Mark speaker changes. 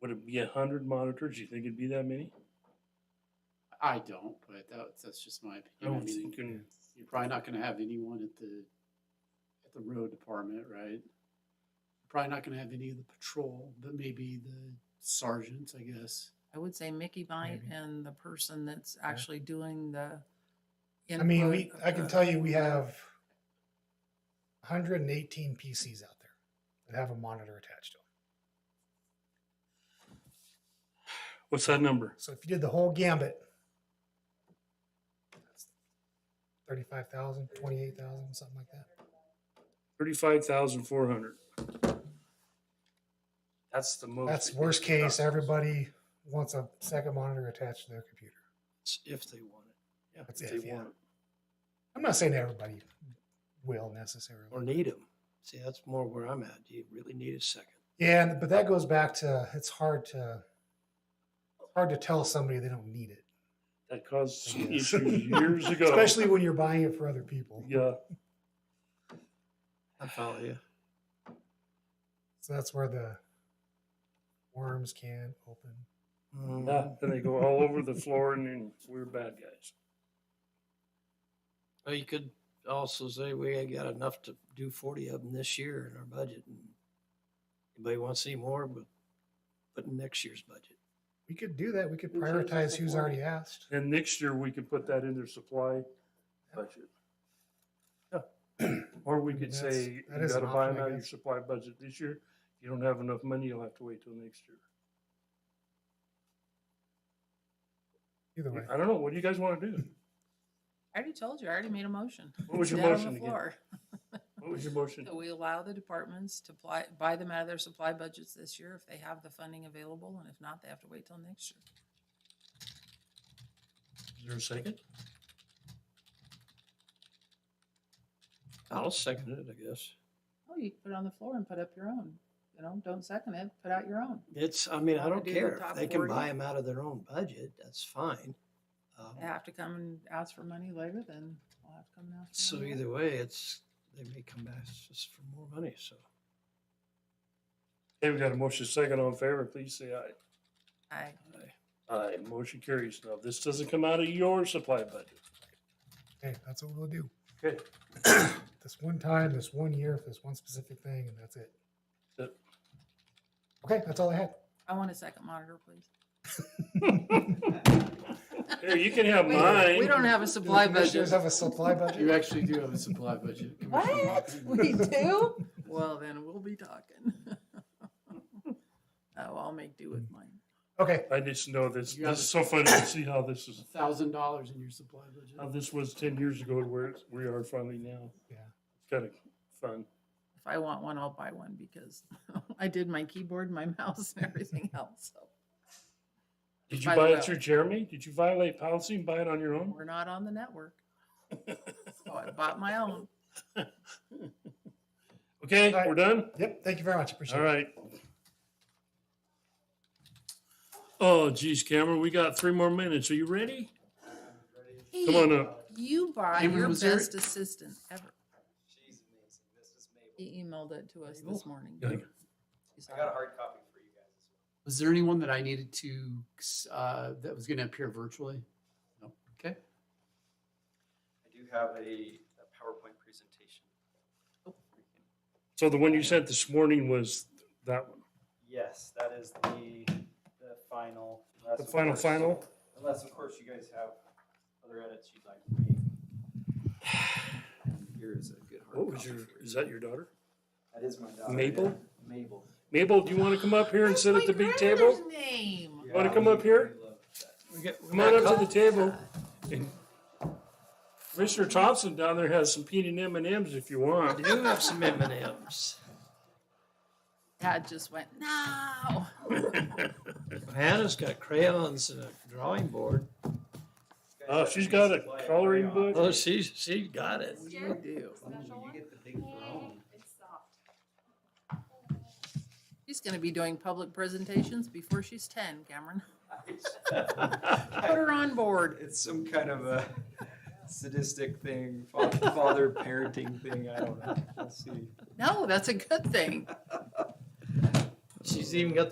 Speaker 1: Would it be a hundred monitors? You think it'd be that many?
Speaker 2: I don't, but that, that's just my
Speaker 1: I
Speaker 2: opinion. I
Speaker 1: don't
Speaker 2: mean,
Speaker 1: think, you-
Speaker 2: you're probably not gonna have anyone at the, at the road department, right? Probably not gonna have any of the patrol, but maybe the sergeants, I guess.
Speaker 3: I would say Mickey might
Speaker 4: Maybe.
Speaker 3: and the person that's actually doing the.
Speaker 4: I mean,
Speaker 3: input
Speaker 4: we,
Speaker 3: of
Speaker 4: I can
Speaker 3: the-
Speaker 4: tell you, we have hundred and eighteen PCs out there that have a monitor attached to them.
Speaker 1: what's that number?
Speaker 4: So if you did the whole gambit, that's 35,000, 28,000, something like that.
Speaker 1: Thirty-five thousand four hundred. That's the most.
Speaker 4: That's
Speaker 1: that you
Speaker 4: worst
Speaker 1: can get.
Speaker 4: case, everybody wants a second monitor attached to their computer.
Speaker 5: If they want it. Yeah.
Speaker 4: That's
Speaker 5: if
Speaker 4: if,
Speaker 5: they
Speaker 4: yeah.
Speaker 5: want it.
Speaker 4: I'm not saying everybody will necessarily.
Speaker 5: Or need them. See, that's more where I'm at. Do you really need a second?
Speaker 4: Yeah, and- but that goes back to it's hard to it's hard to tell somebody they don't need it,
Speaker 1: That caused some
Speaker 4: Yes.
Speaker 1: issues years ago.
Speaker 4: especially when you're buying it for other people.
Speaker 1: Yeah,
Speaker 5: I follow you.
Speaker 4: So that's where the worms can open.
Speaker 5: Mm-hmm.
Speaker 1: yeah, and they go all over the floor and then we're bad guys.
Speaker 5: Well, you could also say we ain't got enough to do forty of them this year in our budget. And anybody want to see more? We'll put in next year's budget.
Speaker 4: We could do that. We could
Speaker 3: Who chooses
Speaker 4: prioritize
Speaker 3: the
Speaker 4: who's
Speaker 3: form?
Speaker 4: already asked.
Speaker 1: And next year, we can put that in their supply budget. Yeah. Or we
Speaker 4: I mean,
Speaker 1: could
Speaker 4: that's-
Speaker 1: say,
Speaker 4: that
Speaker 1: you
Speaker 4: is an
Speaker 1: gotta buy
Speaker 4: option, I
Speaker 1: them out of your
Speaker 4: guess.
Speaker 1: supply budget this year. If you don't have enough money, you'll have to wait till next year.
Speaker 4: Either way.
Speaker 1: I don't know, what do you guys wanna do?
Speaker 3: I already told you, I already made a motion.
Speaker 1: What was
Speaker 3: It's
Speaker 1: your
Speaker 3: down on
Speaker 1: motion
Speaker 3: the
Speaker 1: again?
Speaker 3: floor.
Speaker 1: What was your motion?
Speaker 3: That we allow the departments to apply, buy them out of their supply budgets this year if they have the funding available, and if not, they have to wait till next year.
Speaker 1: Is there a second?
Speaker 5: I'll second it, I guess.
Speaker 3: Oh, you can put it on the floor and put up your own, you know, don't second it, put out your own.
Speaker 5: It's, I mean, I
Speaker 3: Want to do
Speaker 5: don't
Speaker 3: the
Speaker 5: care. If
Speaker 3: top
Speaker 5: they can
Speaker 3: 40?
Speaker 5: buy them out of their own budget, that's fine. Um,
Speaker 3: They have to come and ask for money later, then I'll have to come and ask. for
Speaker 5: So
Speaker 3: money later.
Speaker 5: either way, it's, they may come back just for more money, so.
Speaker 1: Hey, we got a motion second on favor, please say aye.
Speaker 3: Aye.
Speaker 5: I-
Speaker 1: Aye, motion carries. Now, this doesn't come out of your supply budget.
Speaker 4: Hey, that's what we'll do.
Speaker 1: Okay.
Speaker 4: This one time, this one year, for this one specific thing, and that's it.
Speaker 1: Yep.
Speaker 4: Okay, that's all I had.
Speaker 3: I want a second monitor, please.
Speaker 1: Here, you can have
Speaker 3: We don't- we
Speaker 1: mine.
Speaker 3: don't have a
Speaker 4: Do the
Speaker 3: supply
Speaker 4: commissioners
Speaker 3: budget.
Speaker 4: Have a supply
Speaker 2: You
Speaker 4: budget?
Speaker 2: actually do have a supply budget. Commissioner
Speaker 3: What?
Speaker 2: Hopkins.
Speaker 3: We do? Well, then we'll be talking. Oh, I'll make do with mine.
Speaker 4: Okay,
Speaker 1: I just know this,
Speaker 2: You have
Speaker 1: this is so funny to see how this is,
Speaker 2: A thousand dollars in your supply
Speaker 1: how
Speaker 2: budget.
Speaker 1: this was ten years ago to where it's- we are finally now.
Speaker 4: yeah.
Speaker 1: It's kind of fun.
Speaker 3: If I want one, I'll buy one because I did my keyboard, my mouse and everything else. So
Speaker 1: Did you
Speaker 3: By the
Speaker 1: buy
Speaker 3: way-
Speaker 1: it through Jeremy? Did you violate policy and buy it on your own?
Speaker 3: we're not on the network. So I bought my own.
Speaker 1: Okay,
Speaker 4: All right.
Speaker 1: we're done?
Speaker 4: Yep, thank you very much. Appreciate
Speaker 1: All
Speaker 4: it.
Speaker 1: right. Oh geez, Cameron, we got three more minutes. Are you ready? Come on up.
Speaker 3: You brought
Speaker 2: Cameron,
Speaker 3: your
Speaker 2: was there-
Speaker 3: best assistant ever.
Speaker 6: She's amazing. Mrs. Mabel.
Speaker 3: He emailed it to us
Speaker 2: Mabel?
Speaker 3: this morning.
Speaker 1: Yeah.
Speaker 3: You saw
Speaker 6: I got a
Speaker 3: it.
Speaker 6: hard copy for you guys as well.
Speaker 2: Was there anyone that I needed to, uh, that was gonna appear virtually? No, okay.
Speaker 6: I do have a, a PowerPoint presentation.
Speaker 3: "Oh,
Speaker 1: So the one you sent this morning was that one.
Speaker 6: Yes, that is the, the final.
Speaker 1: The
Speaker 6: unless, of
Speaker 1: final,
Speaker 6: course-
Speaker 1: final?
Speaker 6: Unless, of course, you guys have other edits you'd like to make. And Here is a good hard
Speaker 1: What was
Speaker 6: copy
Speaker 1: your,
Speaker 6: for you.
Speaker 1: is that your daughter?
Speaker 6: That is my daughter.
Speaker 1: Mabel?
Speaker 6: yeah. Mabel.
Speaker 1: Mabel, do you want to come up here and
Speaker 3: That's
Speaker 1: sit
Speaker 3: my
Speaker 1: at the big table?
Speaker 3: grandmother's Name.
Speaker 1: Wanna
Speaker 6: Yeah,
Speaker 1: come
Speaker 6: we-
Speaker 1: up here?
Speaker 6: we love that.
Speaker 5: We got- we
Speaker 1: Come
Speaker 5: got
Speaker 1: on
Speaker 5: a
Speaker 1: up to
Speaker 5: couple-
Speaker 1: the table. And Commissioner Thompson down there has some peanut M and M's if you
Speaker 5: I
Speaker 1: want.
Speaker 5: do have some M and M's.
Speaker 3: Dad just went, no.
Speaker 5: Hannah's got crayons and a drawing board.
Speaker 6: You guys
Speaker 1: Oh,
Speaker 6: have
Speaker 1: she's
Speaker 6: a
Speaker 1: got a
Speaker 6: supply of
Speaker 1: coloring
Speaker 6: crayons.
Speaker 1: book.
Speaker 5: Oh, she's, she's got it.
Speaker 3: You do.
Speaker 6: Ooh, You get the big brown.
Speaker 7: It's soft.
Speaker 3: She's gonna be doing public presentations before she's ten, Cameron. Put
Speaker 6: I-
Speaker 3: her on board.
Speaker 6: It's some kind of a sadistic thing, fa- father parenting thing. I don't know. We'll see.
Speaker 3: No, that's a good thing.
Speaker 5: She's even got